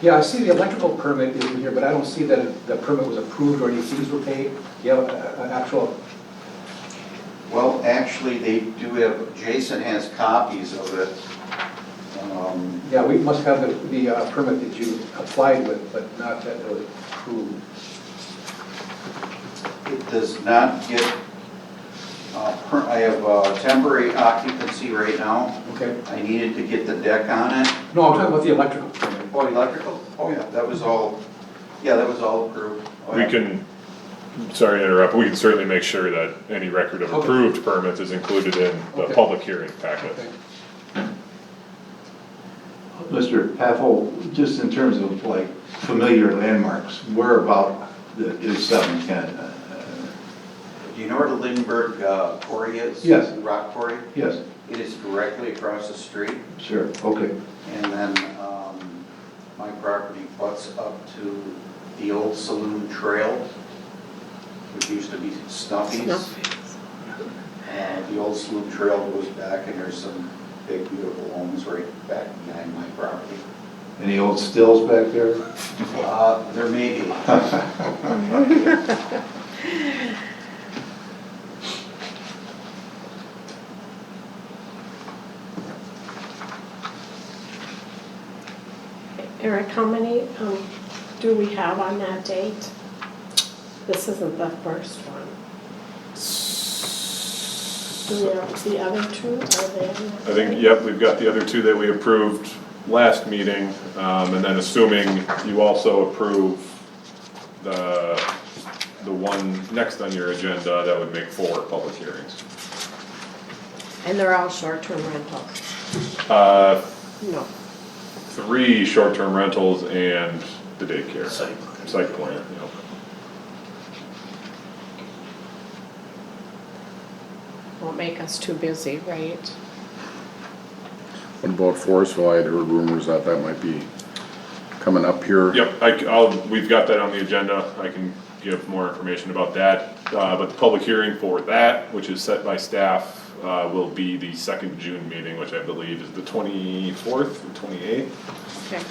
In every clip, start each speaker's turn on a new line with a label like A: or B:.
A: Yeah, I see the electrical permit is in here, but I don't see that the permit was approved or any fees were paid. Do you have a- a- an actual,
B: Well, actually, they do have, Jason has copies of it. Um,
A: yeah, we must have the, the uh, permit that you applied with, but not that it was approved.
B: It does not get, uh, per- I have uh, temporary occupancy right now.
A: Okay,
B: I needed to get the deck on it.
A: no, I'm talking about the electrical permit.
B: Oh, electrical? Oh, yeah, that was all, yeah, that was all approved. Oh,
C: We
B: yeah.
C: can, sorry to interrupt, we can certainly make sure that any record of
A: Okay.
C: approved permits is included in the
A: Okay.
C: public hearing packet.
A: Okay.
D: Mr. Paffel, just in terms of like familiar landmarks, where about the- is 710? Uh,
B: Do you know where the Lindbergh uh, quarry is?
D: Yes.
B: Rock quarry?
D: Yes,
B: It is directly across the street,
D: sure, okay.
B: and then um, my property butts up to the old saloon trail, which used to be Snuffy's. Uh, The old saloon trail goes back, and there's some big beautiful homes right back behind my property.
D: Any old stills back there?
B: Uh, There may be,
E: Eric, how many um, do we have on that date? This isn't the first one. Do we have the other two, are they? on that
C: I think,
E: date?
C: yep, we've got the other two that we approved last meeting, um, and then assuming you also approve the, the one next on your agenda, that would make four public hearings.
F: And they're all short-term rentals?
C: Uh,
F: No.
C: three short-term rentals and the daycare. Site plan. Site plan, yep.
F: Won't make us too busy, right?
G: What about Forestville? I had heard rumors that that might be coming up here.
C: Yep, I, will we've got that on the agenda, I can give more information about that, uh, but the public hearing for that, which is set by staff, uh, will be the second June meeting, which I believe is the twenty-fourth or twenty-eighth.
F: Okay.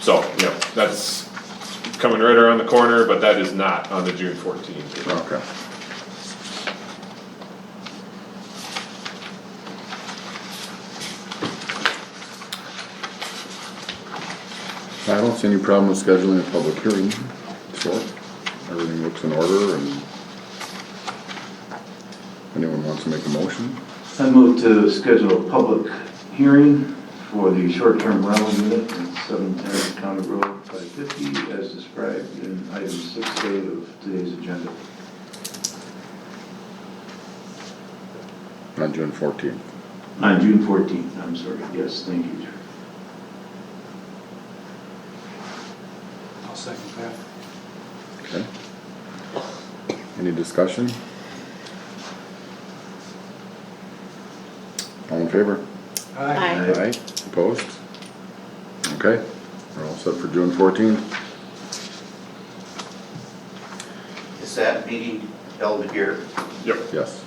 C: So, yeah, that's coming right around the corner, but that is not on the June fourteenth.
G: Okay. I don't see any problem with scheduling a public hearing. So everything looks in order and if anyone wants to make a motion?
D: I move to schedule a public hearing for the short-term rental unit at 710 County Road 550 as described in item 6A of today's agenda.
G: On June fourteenth.
D: On June 14th, I'm sorry, yes, thank you, Jerry.
A: I'll second that.
G: Okay. Any discussion? All in favor?
A: Aye.
F: Aye.
G: Aye. Opposed? Okay, we're all set for June fourteenth.
B: is that meeting held here?
C: Yep,
G: Yes,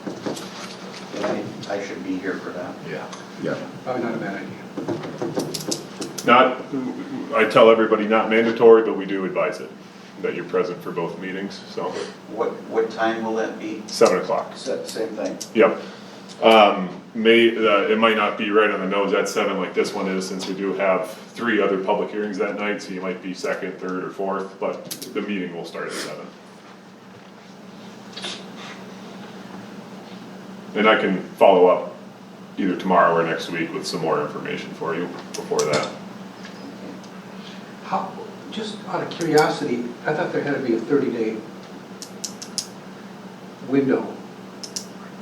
B: I I should be here for that.
D: Yeah.
G: yeah.
A: Probably not a bad idea.
C: not, I tell everybody not mandatory, but we do advise it, that you're present for both meetings, so,
B: What, what time will that be?
C: seven o'clock.
B: Sa- Same thing.
C: Yep. Um, may, uh, it might not be right on the nose at seven like this one is, since we do have three other public hearings that night, so you might be second, third, or fourth, but the meeting will start at seven. And I can follow up either tomorrow or next week with some more information for you before that.
A: How, just out of curiosity, I thought there had to be a 30-day window.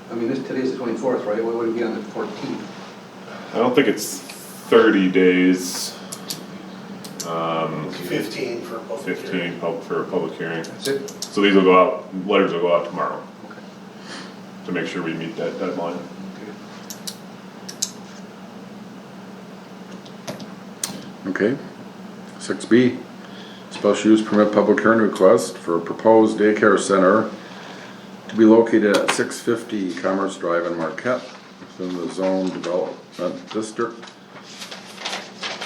A: I mean, this, today's the 24th, right? Why would it be on the 14th?
C: I don't think it's thirty days. Um,
H: Fifteen for both.
C: fifteen pub- for a public hearing.
A: That's it?
C: So these will go out, letters will go out tomorrow.
A: Okay.
C: to make sure we meet that deadline.
A: Okay.
G: Okay. Six B, special use permit public hearing request for a proposed daycare center to be located at six fifty Commerce Drive in Marquette, within the zone development district